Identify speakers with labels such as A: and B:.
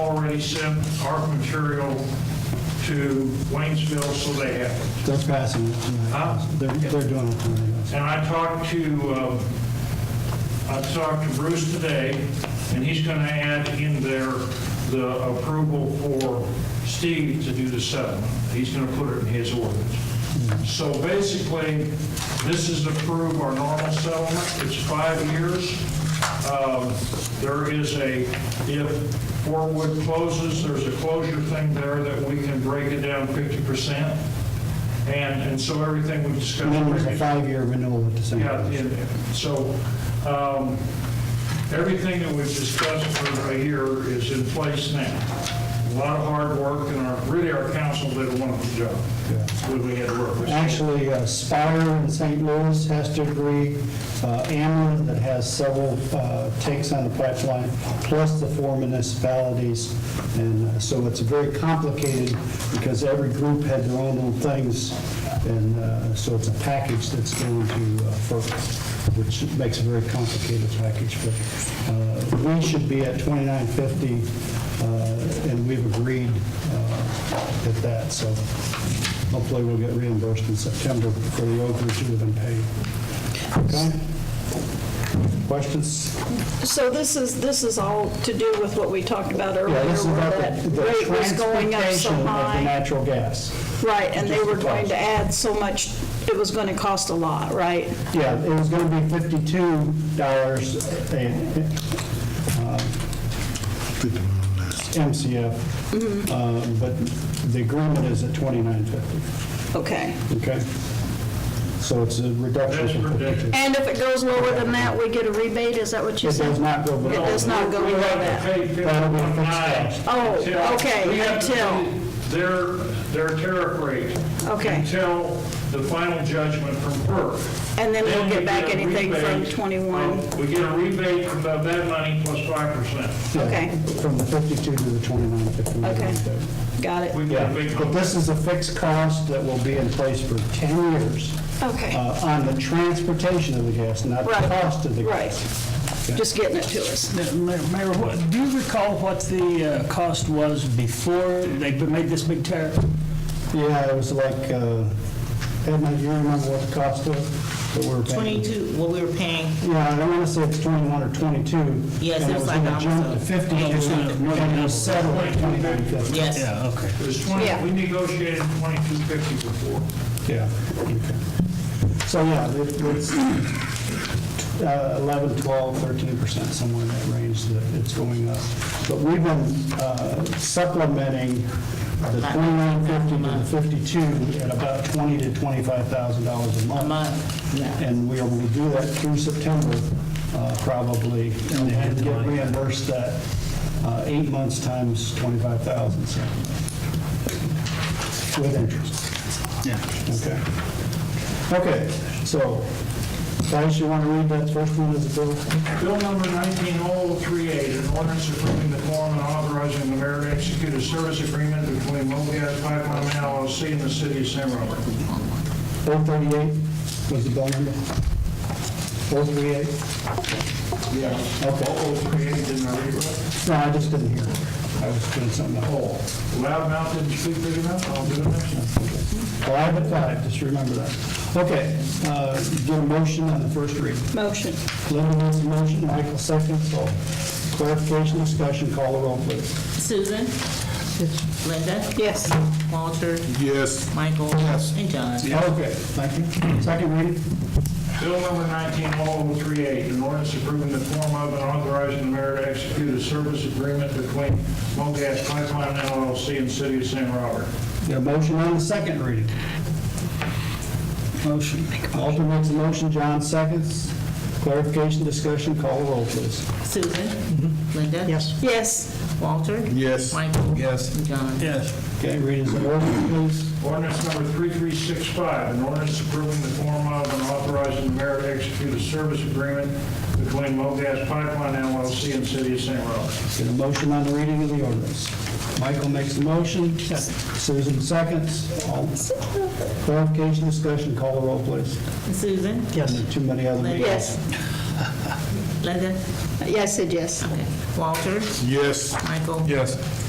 A: already sent our material to Waynesville, so they have it.
B: They're passing it
A: Huh?
B: tonight. They're, they're doing it tonight.
A: And I talked to, uh, I talked to Bruce today, and he's going to add in there the approval for Steve to do the settlement. He's going to put it in his ordinance. So basically, this is to approve our normal settlement. It's five years. Um, There is a, if Fort Wood closes, there's a closure thing there that we can break it down 50%. And, and so everything we discussed.
B: And then there's a
A: previously-
B: five-year renewal at the same
A: yeah,
B: time.
A: and so, um, everything that we've discussed for a year is in place now. A lot of hard work, and our, really, our council did a wonderful job when we had to work with.
B: Actually, uh, Spire in St. Louis has to agree, uh, Ameren that has several uh, takes on the pipeline, plus the four municipalities. And uh, so it's very complicated because every group had their own little things. And uh, so it's a package that's going to uh, FERC, which makes a very complicated package. But uh, we should be at 2950, uh, and we've agreed uh, at that. So Hopefully, we'll get reimbursed in September for the overage that have been paid. Okay? Questions?
C: So this is, this is all to do with what we talked about earlier,
B: Yeah, this is
C: where
B: about
C: that
B: the- the
C: rate was going up so
B: transportation of the
C: high.
B: natural gas.
C: Right, and they
B: just the
C: were going
B: cost.
C: to add so much, it was going to cost a lot, right?
B: Yeah, it was going to be fifty-two dollars uh, MCF,
C: Mm-hmm.
B: uh, but the agreement is at twenty-nine fifty,
C: Okay.
B: okay? So it's a reduction.
A: That's
B: from
A: ridiculous.
B: 52.
C: And if it goes lower than that, we get a rebate, is that what you
B: It
C: said?
B: does not go below.
C: It does not go
A: We
C: below
A: have to
C: that.
A: pay
B: That'll be fixed
A: 51.9
B: cost.
C: Oh,
A: until-
C: okay,
A: we have to
C: until.
A: pay Their, their tariff rate.
C: Okay.
A: Until the final judgment from FERC.
C: And then we'll
A: we
C: get back
A: a
C: anything from
A: rebate um,
C: 21.
A: of- We get a rebate from that money plus 5%.
B: Yeah,
C: Okay.
B: From the 52 to the 29, 50.
C: Okay. Got it?
A: We got a big.
B: Yeah, but this is a fixed cost that will be in place for 10 years
C: Okay,
B: uh, on the transportation of the gas, not the
C: Right.
B: cost of the
C: right.
B: gas.
C: Just getting it to us.
D: Mayor, Mayor, what- do you recall what the uh, cost was before they made this big tariff?
B: Yeah, it was like, uh, Edna, do you remember what the cost was that we were paying?
E: 22, what we were paying,
B: Yeah, I don't want to say it's 21 or 22.
E: Yes,
B: and
E: it was
B: gonna
E: like
B: jump to
E: almost a-
B: 50,
E: Yeah, it was
B: and
E: like
D: more than
B: it
D: double.
B: was settled at 29, 50.
E: yes.
D: Yeah, okay.
A: It was 20,
C: Yeah.
A: we negotiated 2250 before.
B: Yeah. So, yeah, it- it's uh, 11, 12, 13%, somewhere in that range that it's going up. But we've been uh, supplementing the 2950 to the 52 at about 20 to $25,000 a month.
E: a month, yeah.
B: And we will do that through September, uh, probably, and then get reimbursed that uh, eight months times 25,000, so, with interest. Yeah. Okay. Okay, so, guys, you want to read that first one as a bill?
A: Bill number 19038, an ordinance approving the form and authorizing the mayor to execute a service agreement between MoGas Pipeline LLC and the city of San Robert.
B: 438 was the bill number? 438?
A: Yeah. Oh,
B: Okay.
A: 0038, didn't I read it?
B: No, I just didn't hear. I was doing something else.
A: Oh, loud mouth didn't speak big enough, I'll do it next time.
B: Five at five, just remember that. Okay, uh, get a motion on the first read.
C: Motion.
B: Linda makes a motion, Michael seconds, all clarification, discussion, call the roll, please.
E: Susan? Linda?
C: Yes.
E: Walter?
F: Yes.
E: Michael?
F: Yes.
E: And John?
B: Okay, thank you. Second reading?
A: Bill number 19038, an ordinance approving the form of and authorizing the mayor to execute a service agreement between MoGas Pipeline LLC and city of San Robert.
B: Get a motion on the second reading. Motion. Walter makes a motion, John seconds. Clarification, discussion, call the roll, please.
E: Susan? Linda? Yes.
C: Yes.
E: Walter?
F: Yes.
E: Michael?
F: Yes.
E: And John?
D: Yes.
B: Okay, read as an order, please.
A: Ordinance number 3365, an ordinance approving the form of and authorizing the mayor to execute a service agreement between MoGas Pipeline LLC and City of St. Robert.
B: Get a motion on the reading of the ordinance. Michael makes a motion, Susan seconds. All- Clarification, discussion, call the roll, please.
E: Susan?
B: Yes. Too many other meetings.
C: Yes.
E: Linda?
C: Yes, I said yes.
E: Okay. Walter?
F: Yes.
E: Michael?
F: Yes.